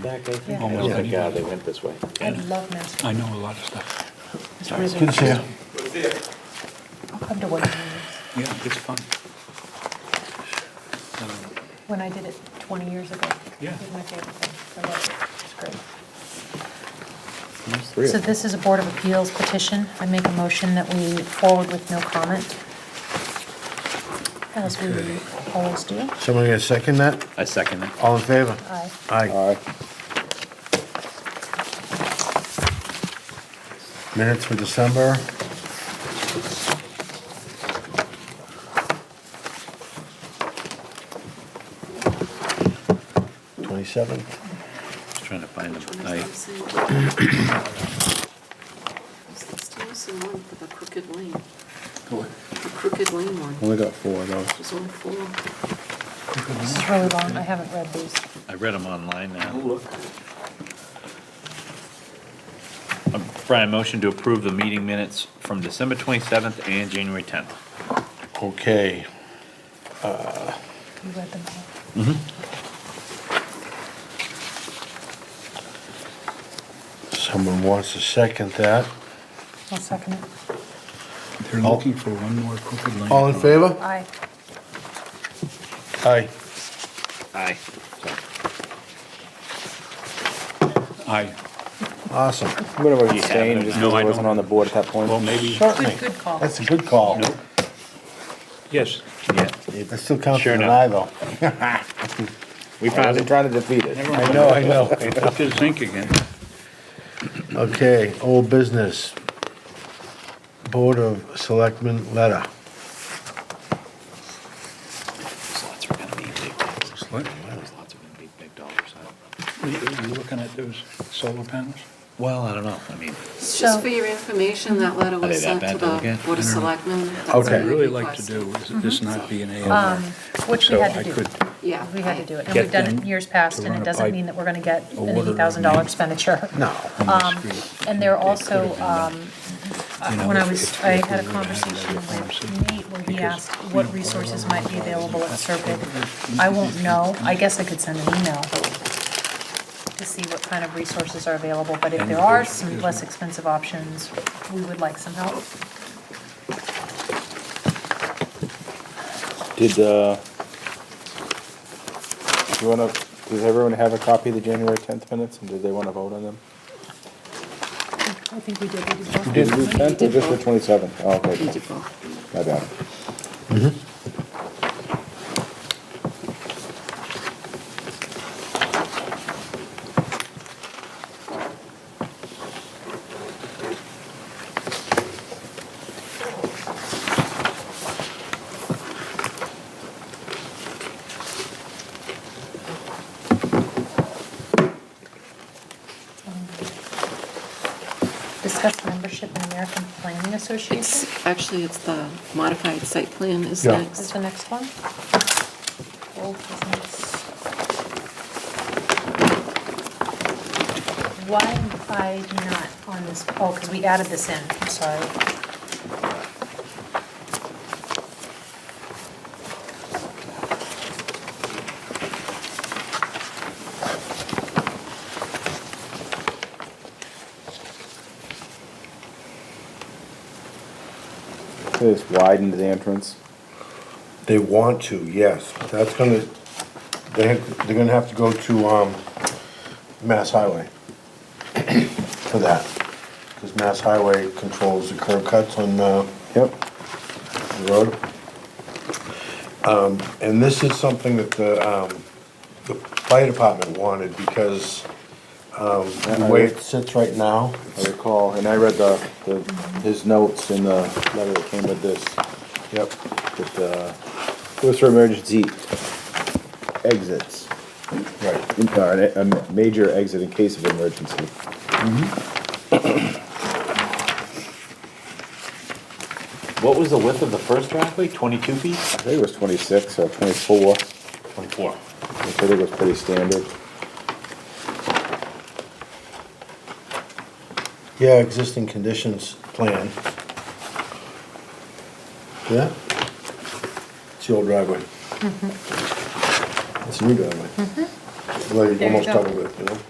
back, I think. Yeah. Oh, Yeah. my God, they went this way. I love Mass. I know a lot of stuff. Good Good to see you. I'll come to one of these. Yeah, it's fun. Um, When I did it 20 years ago. Yeah. It was my favorite thing. I loved it. It's great. Really? So this is a Board of Appeals petition. I make a motion that we forward with no comment, as we Okay. always do. Someone gonna second that? I second that. All in favor? Aye. Aye. All right. Minutes for December. Twenty-seventh. Just trying to find them. I, Still see one for the crooked lane, the crooked lane one. Only got four of those. There's only four. This is really long. I haven't read these. I read them online now. Um, Brian, motion to approve the meeting minutes from December 27th and January 10th. Okay, You read them all. someone wants to second that. I'll second it. They're looking for one more crooked lane. All in favor? Aye. Aye. Aye. Aye. Awesome. I'm gonna You have abstain, them just 'cause I now. I wasn't don't. on the board at that point. Well, maybe, Certainly. Good call. That's a good call. Nope. yes, Yeah, It still counts Sure as an enough. aye though. we found it. trying to defeat it. I know, I know. look at zinc again. Okay, old business. Board of Selectmen letter. Those lots are gonna be big. Those What? lots are gonna be big dollars. I- Are you are you looking at those solar panels? Well, I don't know. I mean, It's So- just for your information, that letter Are they was that sent bad to to look the at? Board of I don't know. Selectmen. That's What Okay. I'd what we really like to requested. do is this not be an A and R. Um, Which we So had I to do. could Yeah. We had to do it. And Get we've done it them years past, to and run a it doesn't pipe mean that we're going to get or an whatever it $80,000 means. expenditure. No. on the Um, street. And there It could also, have been done. um, You know, when I if- was, if I we had a would've had that conversation conversation, with Nate where he because, asked you know, what all resources our might be available at Serpide. I won't know, I guess I could send an email to see what kind of resources are available, but if And there are there's- some there's- less expensive options, we would like some help. Did, uh, do you wanna, does everyone have a copy of the January tenth minutes, and did they wanna vote on them? I think we did, we did. Did we do tenth or just the twenty-seventh? Oh, We okay, did both. my bad. Discuss membership in American Planning Association It's, actually, it's the modified site plan is Yeah. is next. the next one. Old business. Why am I not on this, oh, because we added this in, I'm sorry. They just widened the entrance. They want to, yes. That's gonna, they, they're gonna have to go to, um, Mass Highway for that. Cause Mass Highway controls the curb cuts on, uh, Yep. the road. Um, and this is something that the, um, the fire department wanted because, um, the way it sits right now, I recall, and I read the, the, his notes in the letter that came with this, yep, that, uh, it was for emergency exits, right. in- or a, a major exit in case of emergency. What was the width of the first driveway? 22 feet? I think it was twenty-six or twenty-four, 24. I think it was pretty standard. Yeah, existing conditions plan. Yeah? It's the old driveway. It's the new driveway. Like, There you almost go. double it, you know?